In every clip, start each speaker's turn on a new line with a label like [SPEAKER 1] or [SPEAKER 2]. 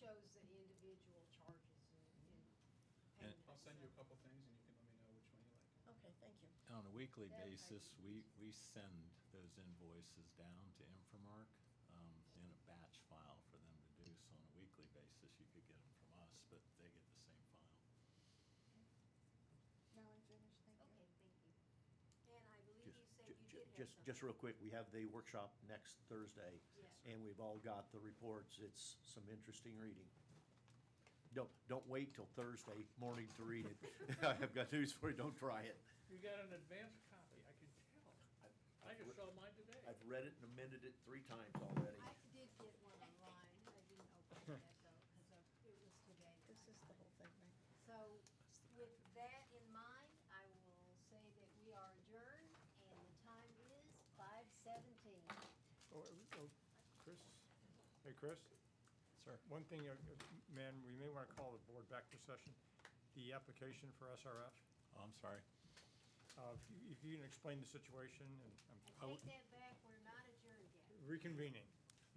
[SPEAKER 1] shows the individual charges and- and.
[SPEAKER 2] And-
[SPEAKER 3] I'll send you a couple things and you can let me know which one you like.
[SPEAKER 4] Okay, thank you.
[SPEAKER 2] On a weekly
[SPEAKER 1] That I-
[SPEAKER 2] basis, we, we send those invoices down to Infomark um, in a batch file for them to do. So on a weekly basis, you could get them from us, but they get the same file.
[SPEAKER 4] Now I'm finished, thank you.
[SPEAKER 1] Okay, thank you. And I believe
[SPEAKER 5] Just,
[SPEAKER 1] you said
[SPEAKER 5] ju-
[SPEAKER 1] you did
[SPEAKER 5] ju-
[SPEAKER 1] have
[SPEAKER 5] just,
[SPEAKER 1] something.
[SPEAKER 5] just real quick, we have the workshop next Thursday.
[SPEAKER 1] Yes.
[SPEAKER 5] And we've all got the reports. It's some interesting reading. Don't, don't wait till Thursday morning to read it. I've got news for you. Don't try it.
[SPEAKER 6] You got an advanced copy, I can tell. I just saw mine today.
[SPEAKER 5] I've read it and amended it three times already.
[SPEAKER 1] I did get one online. I didn't open that though, because it was today. that
[SPEAKER 4] Oh, This
[SPEAKER 1] I
[SPEAKER 4] is the
[SPEAKER 1] got it.
[SPEAKER 4] whole thing, right?
[SPEAKER 1] So with that in mind, I will say that we are adjourned and the time is five seventeen.
[SPEAKER 7] Oh, oh, Chris? Hey, Chris?
[SPEAKER 2] Sir.
[SPEAKER 7] One thing, uh, uh, man, we may want to call the board back to session. The application for SRF,
[SPEAKER 2] Oh, I'm sorry.
[SPEAKER 7] uh, if you- if you can explain the situation and I'm
[SPEAKER 1] I take that back, we're not adjourned yet.
[SPEAKER 7] reconvening.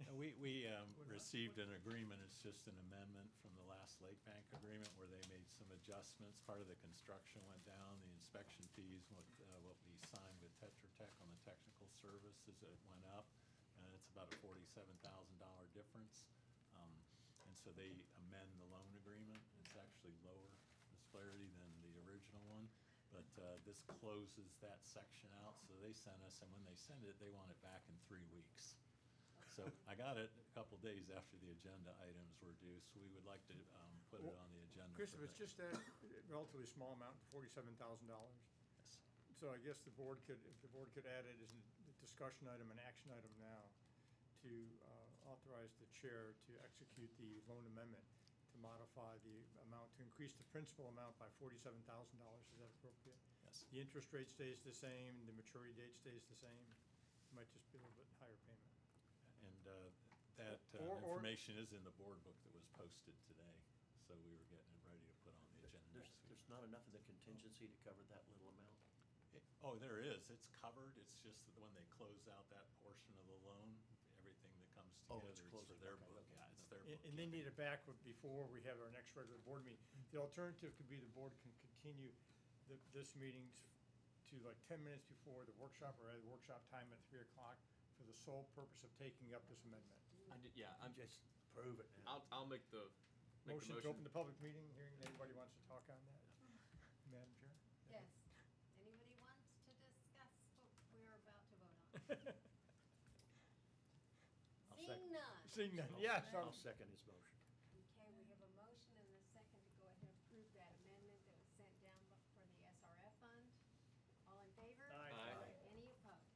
[SPEAKER 2] Uh, We, we um, received an agreement, it's just an amendment from the last Lake Bank agreement where they made some adjustments. Part of the construction went down, the inspection fees, what, uh, what we signed with Tetra Tech on the technical services, it went up. And it's about a forty-seven thousand dollar difference. Um, And so they amend the loan agreement. It's actually lower disparity than the original one. But uh, this closes that section out, so they sent us, and when they send it, they want it back in three weeks. So I got it a couple days after the agenda items were due, so we would like to um, put it on the agenda.
[SPEAKER 7] Chris,
[SPEAKER 2] for
[SPEAKER 7] if it's
[SPEAKER 2] next-
[SPEAKER 7] just that relatively small amount, forty-seven thousand dollars,
[SPEAKER 2] Yes.
[SPEAKER 7] so I guess the board could, if the board could add it as a discussion item, an action item now, to uh, authorize the chair to execute the loan amendment to modify the amount, to increase the principal amount by forty-seven thousand dollars, is that appropriate?
[SPEAKER 2] Yes.
[SPEAKER 7] The interest rate stays the same, the maturity date stays the same, It might just be a little bit higher payment.
[SPEAKER 2] And uh, that uh,
[SPEAKER 7] Or- or-
[SPEAKER 2] information is in the board book that was posted today, so we were getting it ready to put on the agenda
[SPEAKER 5] There's,
[SPEAKER 2] next week.
[SPEAKER 5] there's not enough in the contingency to cover that little amount.
[SPEAKER 2] It- Oh, there is, it's covered, it's just that when they close out that portion of the loan, everything that comes
[SPEAKER 5] Oh,
[SPEAKER 2] together,
[SPEAKER 5] it's
[SPEAKER 2] it's for
[SPEAKER 5] closing,
[SPEAKER 2] their
[SPEAKER 5] okay,
[SPEAKER 2] book,
[SPEAKER 5] okay.
[SPEAKER 2] yeah, it's their book.
[SPEAKER 7] And and they need it back with- before we have our next regular board meeting. The alternative could be the board can continue the- this meeting t- to like 10 minutes before the workshop or at the workshop time at 3 o'clock for the sole purpose of taking up this amendment.
[SPEAKER 8] I did, yeah, I'm,
[SPEAKER 5] Just prove it now.
[SPEAKER 8] I'll, I'll make the, make the
[SPEAKER 7] Motion to open the
[SPEAKER 8] motion.
[SPEAKER 7] public meeting, hearing if anybody wants to talk on that. Madam Chair?
[SPEAKER 1] Yes. Anybody wants to discuss what we're about to vote on?
[SPEAKER 7] Yes.
[SPEAKER 5] I'll
[SPEAKER 1] Seeing
[SPEAKER 5] second.
[SPEAKER 1] none.
[SPEAKER 7] Seeing none, yes.
[SPEAKER 5] I'll
[SPEAKER 7] I'm-
[SPEAKER 5] second his motion.
[SPEAKER 1] Okay, we have a motion and a second to go ahead and approve that amendment that was sent down for the SRF fund. All in favor?
[SPEAKER 7] Aye.
[SPEAKER 8] Aye.
[SPEAKER 1] Any opposed?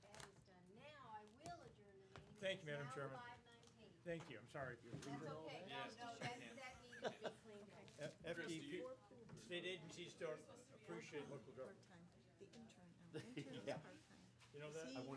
[SPEAKER 1] Okay, that is done. Now I will adjourn the meeting.
[SPEAKER 7] Thank you, Madam Chairman.
[SPEAKER 1] It's now five nineteen.
[SPEAKER 7] Thank you, I'm sorry.
[SPEAKER 1] That's okay. No,
[SPEAKER 8] Yes,
[SPEAKER 1] no,
[SPEAKER 8] just
[SPEAKER 1] that, that needed to be cleaned up.
[SPEAKER 7] F-
[SPEAKER 8] Chris, do
[SPEAKER 7] FDP,
[SPEAKER 8] you-
[SPEAKER 7] state agencies don't appreciate local government.
[SPEAKER 4] Part-time, the intern, our interns are part-time.
[SPEAKER 7] You know that?
[SPEAKER 4] Is
[SPEAKER 7] I
[SPEAKER 4] he-